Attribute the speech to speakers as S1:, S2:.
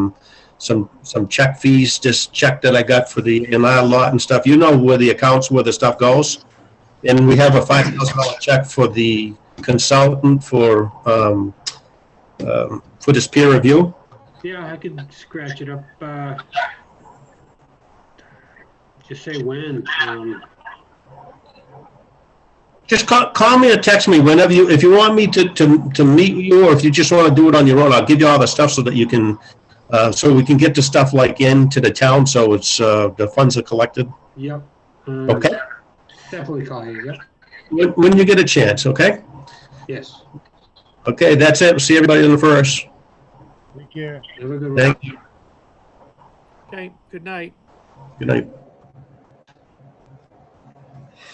S1: some, some, some check fees, just check that I got for the in-law lot and stuff. You know where the accounts, where the stuff goes. And we have a five thousand dollar check for the consultant for, um, um, for this peer review.
S2: Yeah, I could scratch it up, uh, just say when, um,
S1: Just call, call me or text me whenever you, if you want me to, to, to meet you, or if you just want to do it on your own, I'll give you all the stuff so that you can, uh, so we can get the stuff like into the town, so it's, uh, the funds are collected,
S2: yep. um,
S1: okay?
S2: Definitely call you, yep,
S1: When, when you get a chance, okay?
S2: yes.
S1: Okay, that's it, see everybody on the first,
S2: Have a good one.
S1: thank you,
S3: Okay, good night.
S1: good night.